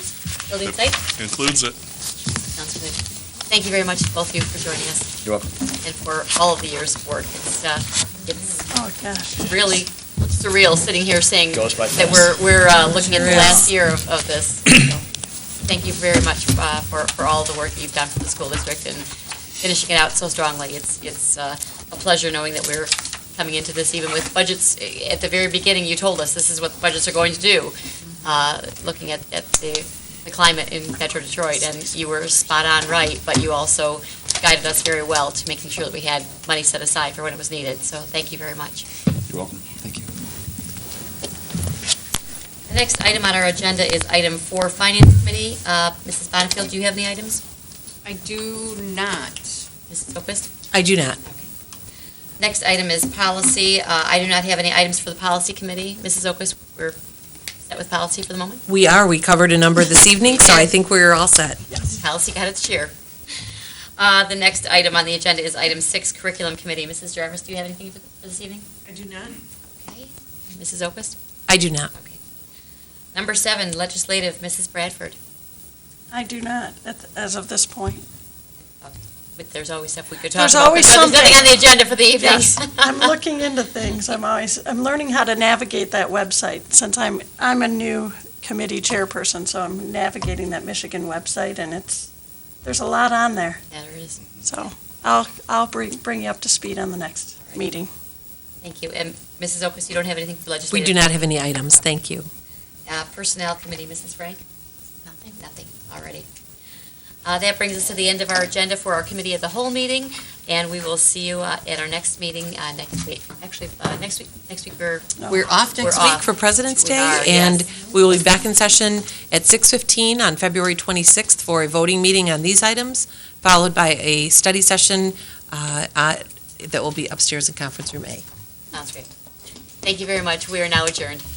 Includes building site? Includes it. Sounds good. Thank you very much, to both of you, for joining us You're welcome. and for all of the years of work. It's, uh, it's Oh, gosh. really surreal sitting here saying Goes by that fast. we're, we're uh, looking at the Surreal. last year of, of this. So, Thank you very much uh, for, for all the work that you've done for the school district and finishing it out so strongly. It's, it's uh, a pleasure knowing that we're coming into this even with budgets. At the very beginning, you told us this is what the budgets are going to do, uh, looking at, at the, the climate in Metro Detroit, and you were spot on right, but you also guided us very well to making sure that we had money set aside for when it was needed. So thank you very much. You're welcome. Thank you. The next item on our agenda is item four, Finance Committee. Uh, Mrs. Bonnefield, do you have any items? I do not. Mrs. O'Quist? I do not. Next item is policy. Uh, I do not have any items for the Policy Committee. Mrs. O'Quist, we're set with policy for the moment? We are, we covered a number this evening, so I think we're all set. Yes. Policy got its share. Uh, The next item on the agenda is item six, Curriculum Committee. Mrs. Jarvis, do you have anything for for this evening? I do not. Okay. Mrs. O'Quist? I do not. Okay. Number seven, Legislative, Mrs. Bradford. I do not, at- as of this point. But there's always stuff we could talk about. There's always So There's nothing on something. the agenda for the evening. Yes, I'm looking into things, I'm always, I'm learning how to navigate that website, since I'm, I'm a new committee chairperson, so I'm navigating that Michigan website, and it's, there's a lot on there, Yeah, there is. so I'll, I'll bring, bring you up to speed on the next meeting. Thank you. And Mrs. Okus, you don't have anything for legislative? We do not have any items, thank you. Uh, Personnel Committee, Mrs. Frank? Nothing. Nothing, already. Uh, That brings us to the end of our agenda for our Committee of the Whole meeting, and we will see you uh, at our next meeting uh, next week. Actually, uh, next week, next week we're, We're off We're next week off. for President's We Day, are, and yes. we will be back in session at 6:15 on February 26th for a voting meeting on these items, followed by a study session uh, uh, that will be upstairs in Conference Room A. sounds great. Thank you very much. We are now adjourned.